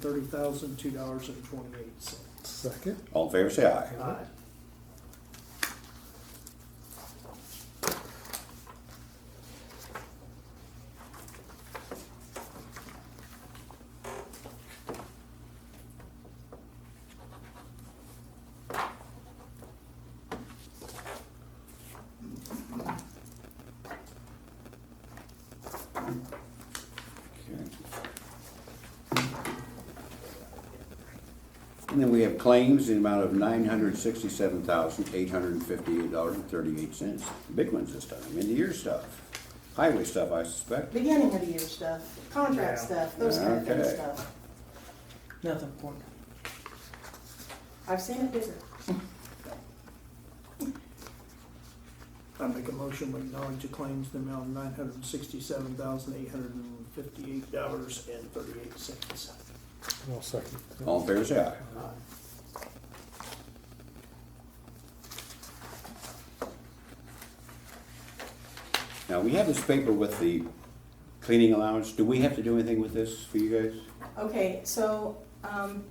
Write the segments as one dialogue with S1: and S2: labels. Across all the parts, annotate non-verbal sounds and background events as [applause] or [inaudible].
S1: thirty thousand, two dollars and twenty-eight cents.
S2: Second.
S3: All in favor, say aye.
S1: Aye.
S3: Okay. And then we have claims in the amount of nine hundred sixty-seven thousand, eight hundred and fifty-eight dollars and thirty-eight cents. Big ones this time, end of year stuff, highway stuff, I suspect.
S4: Beginning of the year stuff, contract
S1: Yeah.
S4: stuff, those kind of thing
S3: Okay.
S4: stuff.
S5: Nothing for me.
S4: I've seen it bigger.
S1: I make a motion we acknowledge the claims in the amount of nine hundred and sixty-seven thousand, eight hundred and fifty-eight dollars and thirty-eight cents.
S2: I'll second.
S3: All in favor, say aye. Now, we have this paper with the cleaning allowance. Do we have to do anything with this for you guys?
S4: Okay, so, um,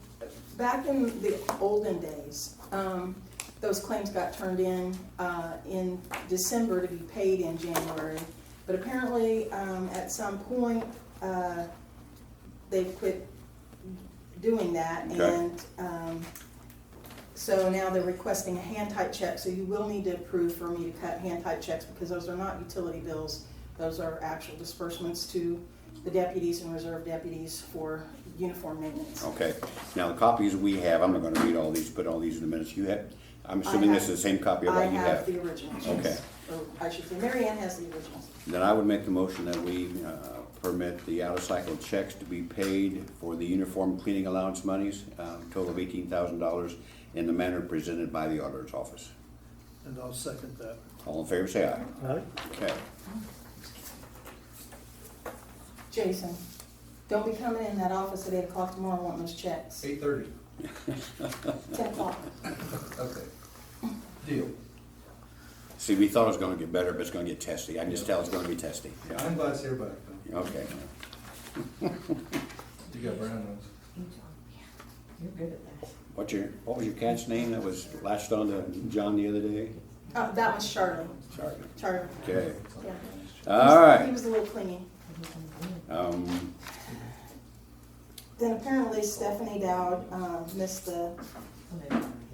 S4: back in the olden days, um, those claims got turned in, uh, in December to be paid in January. But apparently, um, at some point, uh, they quit doing that
S3: Okay.
S4: and, um, so now they're requesting a hand type check, so you will need to approve for me to cut hand type checks because those are not utility bills. Those are actual disbursements to the deputies and reserve deputies for uniform maintenance.
S3: Okay. Now, the copies we have, I'm not gonna read all these, put all these in the minutes. You have, I'm assuming this is the same copy of
S4: I
S3: what you
S4: have
S3: have.
S4: the originals. yes.
S3: Okay.
S4: Or I should say, Mary Ann has the originals.
S3: Then I would make the motion that we uh, permit the out-of-cycle checks to be paid for the uniform cleaning allowance monies, uh, total of eighteen thousand dollars, in the manner presented by the auditor's office.
S1: And I'll second that.
S3: All in favor, say aye.
S2: Aye.
S3: Okay.
S4: Jason, don't be coming in that office at eight o'clock tomorrow wanting those checks.
S6: Eight thirty,
S4: Ten o'clock.
S6: okay. Deal.
S3: [laughs] See, we thought it was gonna get better, but it's gonna get testy. I can just tell it's gonna be testy.
S6: I'm glad to see everybody.
S3: Okay. [laughs]
S6: You got brown ones.
S5: You're good at that.
S3: What's your, what was your cat's name that was latched on to John the other day?
S4: Uh, that was Charlie,
S3: Sorry.
S4: Charlie.
S3: Okay.
S4: Yeah.
S3: All
S4: He
S3: right.
S4: was a little clingy.
S3: Um,
S4: Then apparently Stephanie Dowd, um, missed the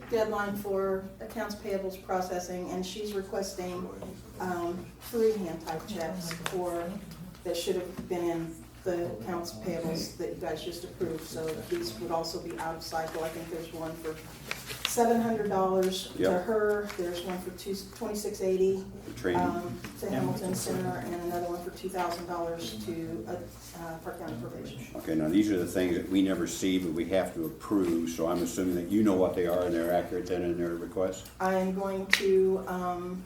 S4: deadline for accounts payables processing, and she's requesting, um, three hand type checks for, that should have been in the accounts payables that you guys just approved, so these would also be out of cycle, I think there's one for seven hundred dollars to
S3: Yep.
S4: her, there's one for two, twenty-six eighty,
S3: training.
S4: um, to Hamilton Center, and another one for two thousand dollars to, uh, Park County Probation.
S3: Okay, now these are the things that we never see, but we have to approve, so I'm assuming that you know what they are and they're accurate then in their request?
S4: I am going to, um,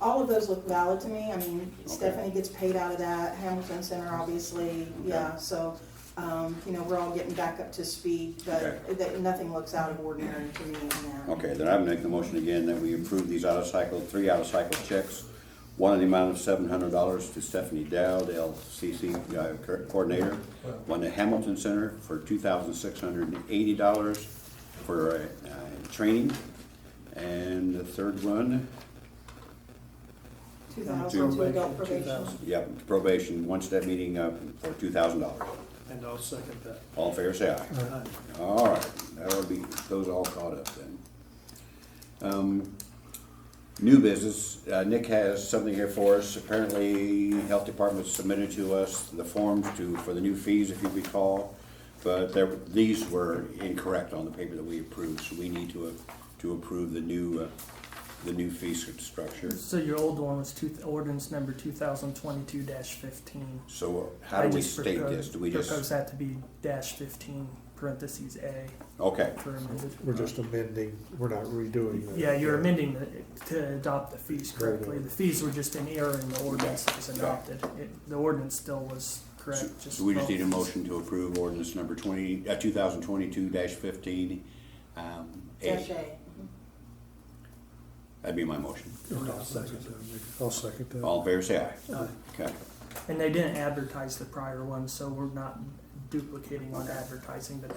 S4: all of those look valid to me. I mean, Stephanie gets paid out of that, Hamilton Center, obviously, yeah, so, um, you know, we're all getting back up to speed,
S3: Okay.
S4: but that, nothing looks out of ordinary to me in that.
S3: Okay, then I would make the motion again that we approve these out of cycle, three out of cycle checks. One in the amount of seven hundred dollars to Stephanie Dowd, LCC uh, co- coordinator. One to Hamilton Center for two thousand six hundred and eighty dollars for uh, uh, training. And the third one,
S4: Two thousand to adult
S1: Two
S4: probation.
S1: thousand.
S3: yep, probation, one step meeting uh, for two thousand dollars.
S1: And I'll second that.
S3: All in favor, say aye.
S1: Aye.
S3: All right, that'll be, those all caught up then. Um, New business, uh, Nick has something here for us. Apparently, Health Department submitted to us the forms to, for the new fees, if you recall. But there, these were incorrect on the paper that we approved, so we need to, uh, to approve the new, uh, the new fee structure.
S7: So your old one was two, ordinance number two thousand twenty-two fifteen.
S3: So how do we state this? Do we
S7: Propose
S3: just,
S7: that to be dash fifteen parentheses A
S3: okay,
S7: for amended.
S2: We're just amending, we're not redoing. the-
S7: Yeah, you're amending the, to adopt the fees correctly. The fees were just an error in the ordinance that was adopted. It, the ordinance still was
S3: so
S7: correct, just.
S3: so we just
S7: both.
S3: need a motion to approve ordinance number twenty, uh, two thousand twenty-two fifteen. um,
S4: Dash A.
S3: That'd be my motion.
S2: Okay, I'll second that. I'll second that.
S3: All in favor, say aye.
S1: Aye.
S3: Okay.
S7: And they didn't advertise the prior one, so we're not duplicating on advertising, but